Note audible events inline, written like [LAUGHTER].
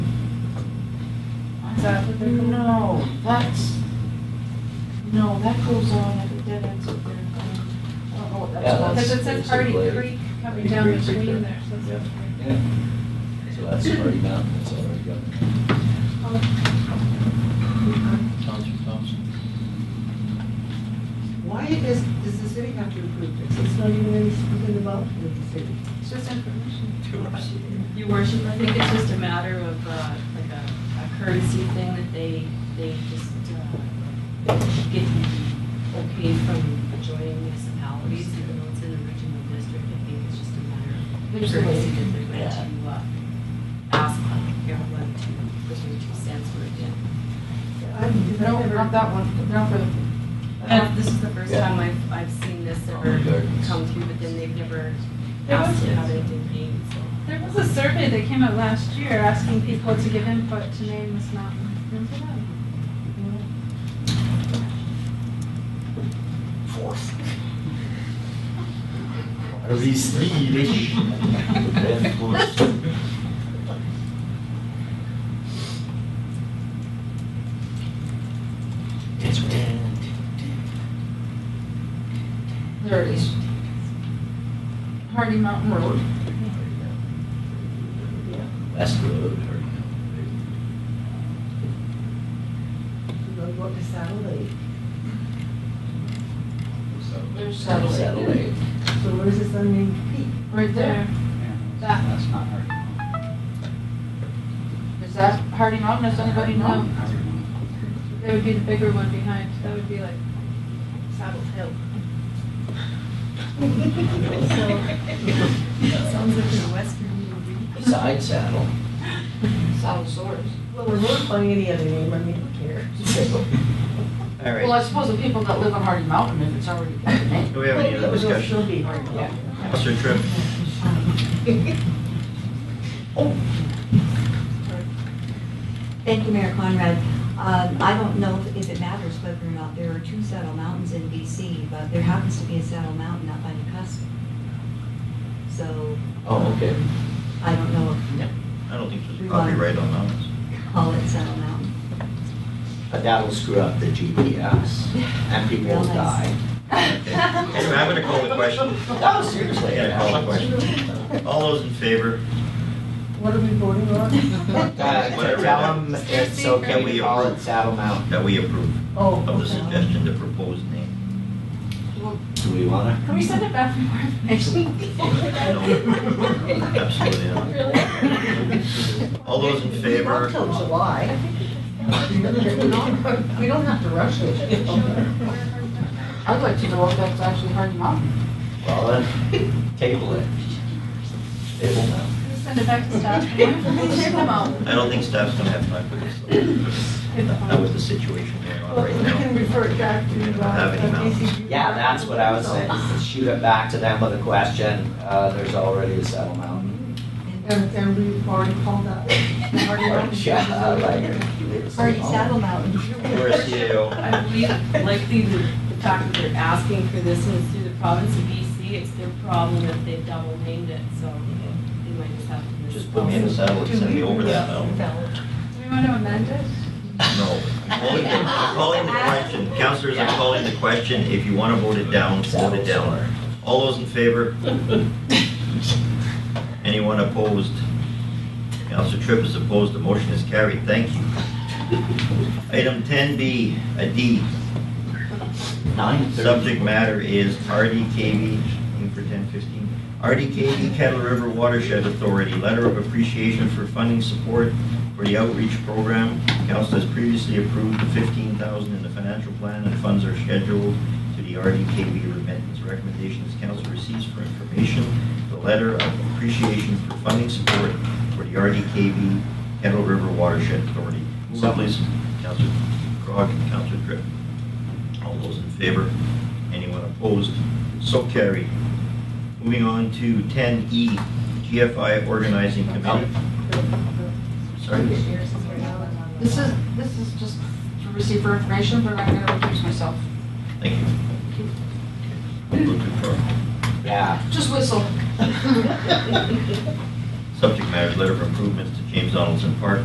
that what they're doing? No, that's, no, that goes on at the dead ends of their, I don't know what Yeah, that's that's- Because called. it says Hardy basically- Creek coming Hardy down Creek right there. between there, so it's. Yeah. So that's already mountain, that's already gone. Counselor Thompson? Why does, does the city have to approve this? It's not even really speaking about the city. It's just information. Your worship, I think it's just a matter of, uh, like a a courtesy thing that they, they just uh, get okay from adjoining municipalities, even though it's in the regional district. I think it's just a matter of There's a courtesy way. that they're going to uh, ask on your one, two, for your two cents worth in. I'm- No, not that one, not for the. uh, And This is the first Yeah. time I've, I've seen this ever Olive Gardens. come through, but then they've never There asked was- how they did paid, so. There was a survey that came out last year asking people to give input to name this mountain. Remember that? Are we Swedish? Of course. There it is. Hardy Mountain Road. That's the road, already mountain. We're gonna go to satellite. There's Satellite. satellite. So where's this unnamed peak? Right there. That. That's not hard. Is that Hardy Mountain? Does anybody know? That would be the bigger one behind, that would be like Saddle Hill. Sounds like a western movie. Side saddle. South Shores. Well, we're not finding any other name, I mean, who [LAUGHS] cares? All Well, I right, suppose the people that live on Hardy Mountain, if it's already got a name. do we have any Well, other it'll discussion? still be hard to Yeah. Counselor Tripp? Thank you, Mayor Conrad. Um, I don't know if- if it matters whether or not there are two saddle mountains in BC, but there happens to be a saddle mountain up by the cusp. So Oh, okay. I don't know I don't think there's a copyright on that one. if call it saddle mountain. But that'll screw up the GPS and people will Real nice. die. Okay. Anyway, I'm gonna call the question. No, seriously. Yeah, call the question. All those in favor, What are we voting on? Whatever Uh, it Tell them is. it's okay, we call it Saddle Mountain. that we approve Oh, of the okay. suggestion to propose name. Do we wanna? Can we send it back for more information? No, Absolutely not. All those in Not favor, till July. We don't have to rush [LAUGHS] it. I'd like to know if that's actually Hardy Mountain. Well, then, table it. Table Mountain. Send it back to staff for more information. I don't think staff's gonna have time for this. That was the situation going on Well, right we can now. refer it back to. We don't have any uh, mountains. DCG. Yeah, that's what I was saying, is shoot it back to them with a question, uh, there's already a Saddle Mountain. And, and we've already called that. Already Or, [LAUGHS] yeah, I like it. Hardy Saddle Mountain. We're a CAO. I believe likely the, the fact that they're asking for this and it's through the province of BC, it's their problem if they double named it, so they might just have to. Just put me in a saddle and send me over that mountain. Do we want to amend it? No. I'm calling the- I'm calling the question. Counselors, I'm calling the question. If you want to vote it down, vote it down. All those in favor? Anyone opposed? Counselor Tripp is opposed. The motion is carried. Thank you. Item 10B, a D. Nine thirty. Subject matter is RDKV, aim for 1015, RDKV Kettle River Watershed Authority, letter of appreciation for funding support for the outreach program. Council has previously approved the 15,000 in the financial plan and funds are scheduled to the RDKV remittance. Recommendations council receives for information, the letter of appreciation for funding support for the RDKV Kettle River Watershed Authority. Move So- on, please. Councilor Crog and Councilor Tripp. All those in favor? Anyone opposed? So carried. Moving on to E, 10E, GFI Organizing Committee. Sorry? This is, this is just to receive for information, but I'm gonna recuse myself. Thank you. Move to approve. Yeah. Just whistle. [LAUGHS] Subject matter, letter of improvements to James Donaldson Park